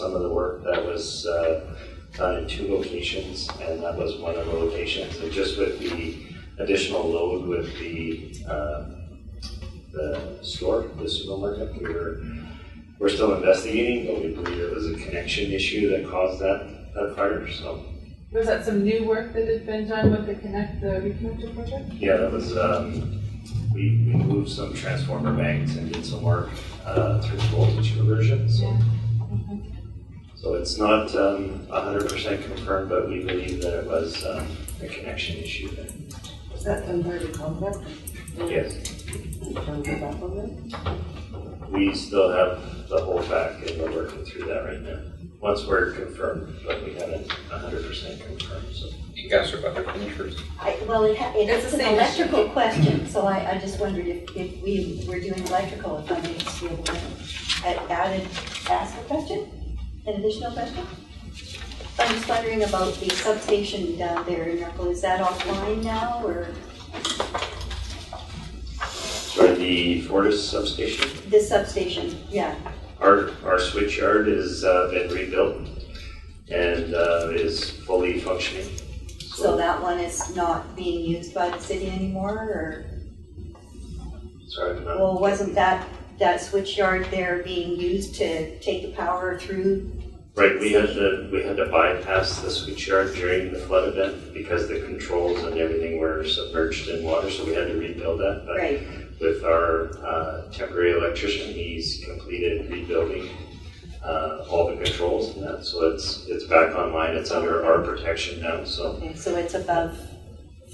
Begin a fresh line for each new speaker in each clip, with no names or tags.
some of the work that was uh, done in two locations, and that was one of the locations. And just with the additional load with the, uh, the store, the supermarket, we were, we're still investigating, but we believe it was a connection issue that caused that, that fire, so.
Was that some new work that had been done with the connect, the reconnector project?
Yeah, that was, um, we, we moved some transformer banks and did some work, uh, through voltage conversion, so. So it's not, um, a hundred percent confirmed, but we believe that it was, um, a connection issue there.
Is that Dunbar complex?
Yes,
Can we go back on that?
we still have the whole back and we're working through that right now. Once we're confirmed, but we haven't a hundred percent confirmed, so.
You guys are about to finish yours.
I, well, it, ha-
It's
it's
the
an
same issue.
electrical question, so I, I just wondered if, if we were doing electrical, if I may just be able to a- add, a- ask a question, an additional question? I'm just wondering about the substation down there in Merkel, is that offline now, or
Sorry, the Fortis substation?
this substation, yeah,
Our, our switchyard has uh, been rebuilt and uh, is fully functioning.
so
So,
that one is not being used by the city anymore, or,
sorry, I'm not-
well, wasn't that, that switchyard there being used to take the power through?
right, we had to, we had to bypass the switchyard during the flood event because the controls and everything were submerged in water, so we had to rebuild that. But
Right,
with our uh, temporary electrician, he's completed rebuilding uh, all the controls and that, so it's, it's back online, it's under our protection now, so.
okay, so it's above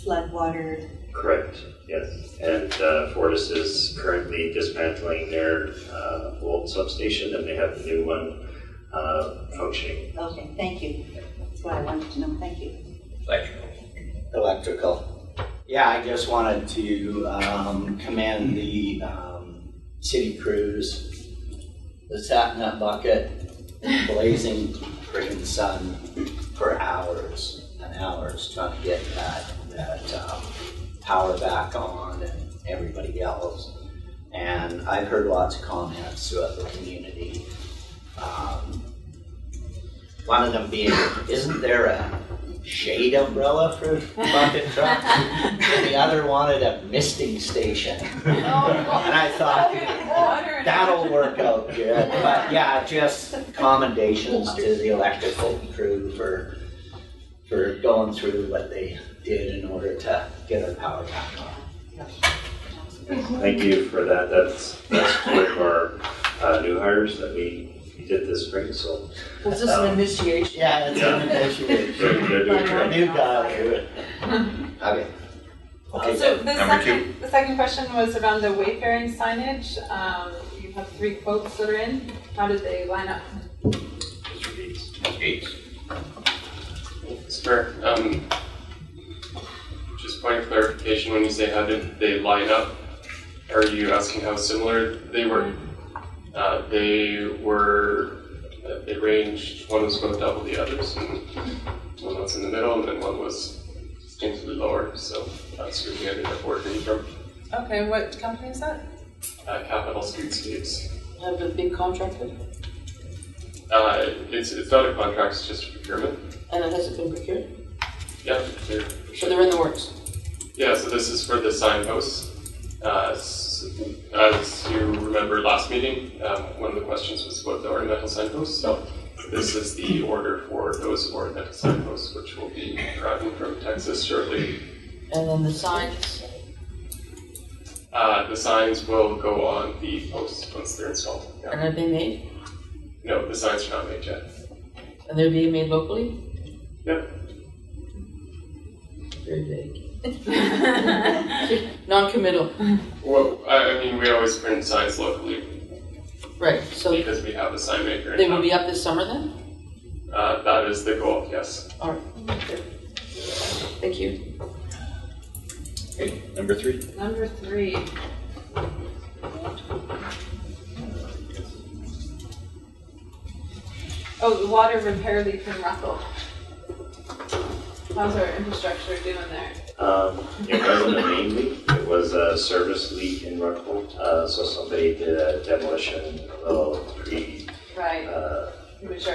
floodwater
Correct, yes. And uh, Fortis is currently dismantling their uh, old substation and they have the new one uh, functioning.
Okay, thank you. That's what I wanted to know, thank you.
Electrical.
Electrical. Yeah, I just wanted to um, commend the um, city crews, the satnut bucket, blazing freaking sun for hours and hours trying to get that, that um, power back on and everybody else. And I've heard lots of comments throughout the community. Um, One of them being, isn't there a shade umbrella for bucket truck. and the other wanted a misting station.
And
And I thought, that'll work out good. But yeah, just commendations to the electrical crew for, for going through what they did in order to get our power back on.
Thank you for that. That's, that's one of our uh, new hires that we, we did this spring, so
Was this an initiation?
Yeah, it's an initiative.
they're, they're doing
A
great.
new guy will do it. Okay. Okay,
So the
Number two.
second, the second question was around the wayfaring signage. Um, you have three quotes that are in. How did they line up?
Eight.
Sir, um, just point of clarification, when you say how did they line up, are you asking how similar they were? Uh, they were, uh, they ranged, one was about double the others, and one was in the middle, and then one was distinctly lower, so that's who we ended up working from.
Okay, what company is that?
Uh, Capital Streetscapes.
Have a big contractor,
Uh, it's, it's not a contract, it's just a procurement.
and it hasn't been procured,
Yeah, they're-
so they're in the works.
Yeah, so this is for the signposts. Uh, s- As you remember last meeting, um, one of the questions was about the ornamental signposts. So this is the order for those ornamental signposts, which will be arriving from Texas shortly.
And then the signs,
Uh, The signs will go on the posts once they're installed.
and
Yeah.
have they made,
No, the signs are not made yet.
and they're being made locally?
Yep.
Very vague. Non-committal,
Well, I I mean, we always print signs locally
right, so
because we have a sign maker. in
they will
town.
be up this summer then?
Uh, That is the goal, yes.
Thank you.
Okay, number three.
Number three. Oh, the water repair leak in Russell. How's our infrastructure doing there?
Um, It wasn't a main leak, it was a service leak in Rockville. Uh So somebody did a demolition, a little pre,
Right,
uh,
we were